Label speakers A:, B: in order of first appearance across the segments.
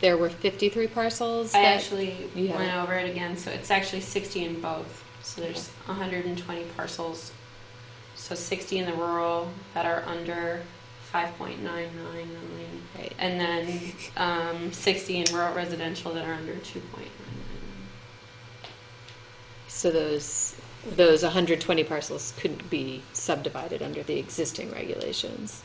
A: there were 53 parcels
B: I
A: that-
B: actually
A: you have
B: went
A: it.
B: over it again, so it's actually sixty in both. So there's hundred and twenty parcels. So sixty in the rural that are under five point nine nine million.
A: Right.
B: And then um, sixty in rural residential that are under two point nine
A: So those, those 120 parcels couldn't be subdivided under the existing regulations.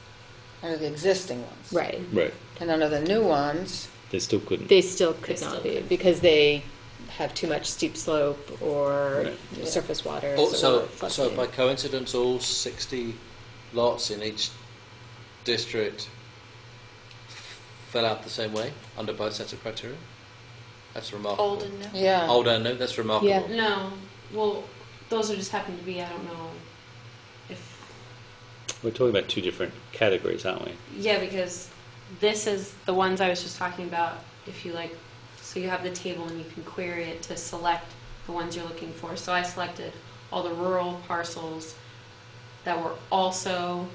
C: under the existing ones.
A: Right.
D: Right.
C: And under the new ones,
D: They still couldn't.
A: They still could
B: They
A: not
B: still
A: be
B: couldn't.
A: because they have too much steep slope or
D: Right.
A: surface water.
E: Also,
A: or
E: Oh, so
A: floodplain.
E: by coincidence, all 60 lots in each district fell out the same way under both sets of criteria? That's remarkable.
F: Old and new.
C: yeah.
E: Old and new, that's remarkable.
A: Yeah.
B: nine. No, well, those are just happen to be. I don't know if
D: We're talking about two different categories, aren't we?
B: Yeah, because this is the ones I was just talking about. If you like, so you have the table and you can query it to select the ones you're looking for. So I selected all the rural parcels that were also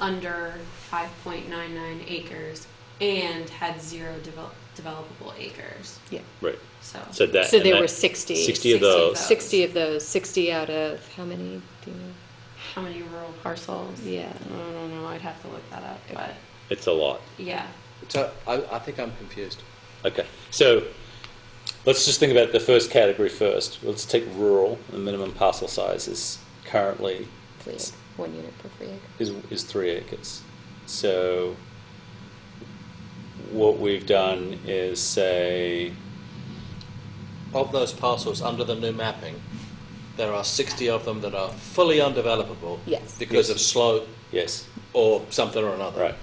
B: under 5.99 acres and had zero develop, developable acres.
A: Yeah.
D: Right.
B: So,
D: So that.
A: So
D: and
A: there
D: that-
A: were 60.
D: 60
B: 60
D: of
B: of
D: those.
B: those.
A: 60 of those, 60 out of how many? Do you know?
B: how many rural parcels?
A: Yeah.
B: I don't know. I'd have to look that up, but
D: It's a lot.
B: yeah.
E: So I, I think I'm confused.
D: Okay. So let's just think about the first category first. Let's take rural. The minimum parcel size is currently
A: Three acre- One unit per three acre.
D: is, is three acres. So what we've done is say
E: Of those parcels under the new mapping, there are 60 of them that are fully undevelopable
A: Yes.
E: because
D: Yes.
E: of slope
D: yes,
E: or something or another.
D: right.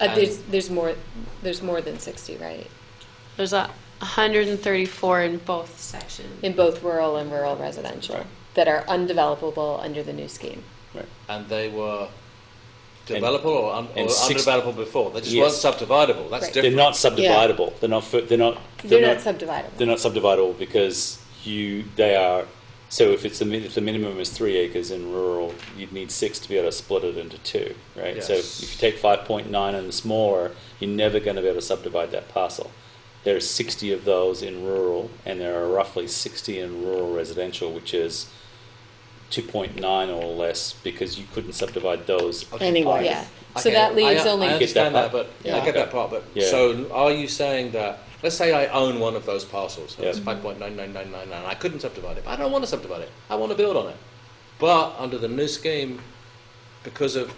A: Uh,
E: And-
A: there's, there's more, there's more than 60, right?
B: There's a 134 in both sections.
A: In both rural and rural residential
D: Right.
A: that are undevelopable under the new scheme.
D: Right.
E: and they were
D: And-
E: developable or, un-
D: and
E: or
D: six-
E: undevelopable before. They just
D: Yes.
E: weren't subdividable. That's
A: Right.
D: They're
E: different.
D: not subdividable. They're not. fu- They're not.
A: They're not subdividable.
D: They're not subdividable because you they are. So if it's the min- if the minimum is three acres in rural, you'd need six to be able to split it into two, right? So
E: Yes.
D: if you take five point nine and smaller, you're never going to be able to subdivide that parcel. There are sixty of those in rural, and there are roughly sixty in rural residential, which is two point nine or less, because you couldn't subdivide those.
E: Okay.
C: Anyway.
A: Yeah.
E: Okay,
A: So that leaves
E: I,
A: only-
E: I
D: You get
E: understand
D: that
E: that,
D: part?
E: but
D: Yeah.
E: I get
D: Okay.
E: that part. But
D: Yeah.
E: so, are you saying that? Let's say I own one of those parcels.
D: Yeah.
E: It's five point nine nine nine nine nine. I couldn't subdivide it. But I don't want to subdivide it. I want to build on it. But under the new scheme, because of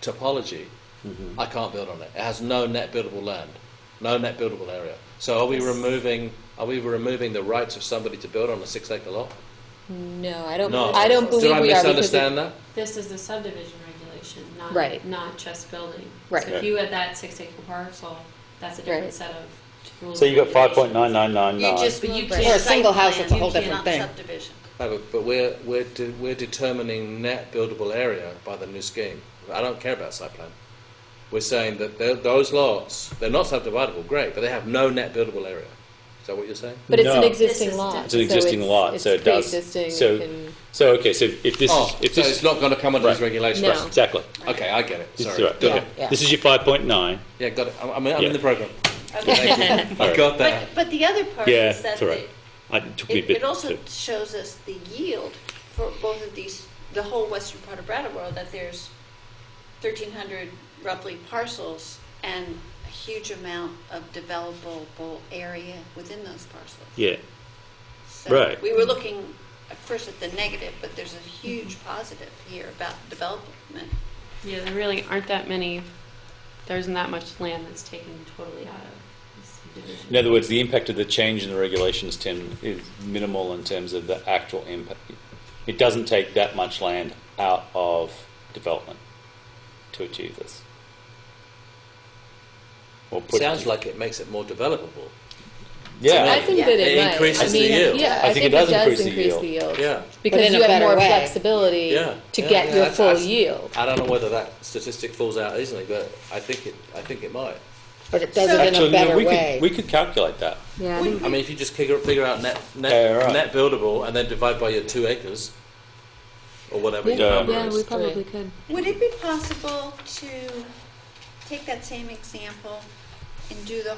E: topology,
A: Mm-hmm.
E: I can't build on it. It has no net buildable land, no net buildable area. So, are we removing? Are we removing the rights of somebody to build on a six-acre lot?
A: No, I don't,
E: No.
A: I don't
E: Did
A: believe
E: I
A: we are because it-
E: misunderstand that?
B: This is the subdivision regulation, not,
A: Right.
B: not just building.
A: Right.
B: So if you had that six acre parcel, that's a different
A: Right.
B: set of rules.
D: So you got
B: and
D: five point
B: regulations.
D: nine nine nine
F: You
D: nine.
F: just
B: But you
F: move
B: can't-
F: the
B: Or a
F: site
C: single house
F: plan.
C: is a whole
F: You
C: different
F: cannot
C: thing.
F: subdivision.
E: No, but, but we're, we're, de- we're determining net buildable area by the new scheme. I don't care about site plan. We're saying that tho- those lots, they're not subdividable, great, but they have no net buildable area. Is that what you're saying?
A: but it's an
D: No.
A: existing
B: This is
A: lot.
B: different.
D: It's an existing lot, so it does.
A: Pre-existing,
D: so,
A: it can-
D: so okay. So if if this
E: oh,
D: if
E: so
D: this
E: it's not going to come under these
D: Right.
E: regulations.
A: No.
D: exactly.
E: Okay, I get it.
D: This
E: Sorry.
D: is right.
E: Good.
D: okay.
C: Yeah.
D: This is your five point nine.
E: Yeah, got it. I'm, I'm, I'm
D: Yeah.
E: in the program.
F: Okay.
E: I got
F: But,
E: that.
F: but the other part
D: Yeah,
F: is that
D: that's all right.
F: the-
D: I, it took me a
F: it
D: bit.
F: it also
D: to-
F: shows us the yield for both of these, the whole western part of Brattleboro, that there's 1,300 roughly parcels and a huge amount of developable area within those parcels.
D: yeah,
F: So
D: Right.
F: We were looking at first at the negative, but there's a huge positive here about development.
B: Yeah, there really aren't that many, there isn't that much land that's taken totally out of the subdivision.
D: In other words, the impact of the change in the regulations, Tim, is minimal in terms of the actual impact. It doesn't take that much land out of development to achieve this. Or put it-
E: Sounds like it makes it more developable.
D: yeah.
A: I think that it
E: It
A: might. I
E: increases the
A: mean,
E: yield.
A: Yeah,
D: I think it does increase the yield.
E: Yeah.
C: But
A: Because
C: in
A: you
C: a
A: have
C: better
A: more
C: way.
A: flexibility
E: Yeah.
A: to
E: Yeah,
A: get your
E: yeah, that's-
A: full
E: that's-
A: yield.
E: I don't know whether that statistic falls out easily, but I think it, I think it might.
C: But it does it in
D: Actually,
C: a
D: no,
C: better
D: we
C: way.
D: could we could calculate that.
A: Yeah,
E: I mean, if you just figure, figure out net net,
D: Yeah, right.
E: net buildable and then divide by your two acres or whatever
D: Yeah.
E: your number
D: Yeah,
E: is.
A: we probably could.
F: Would it be possible to take that same example and do the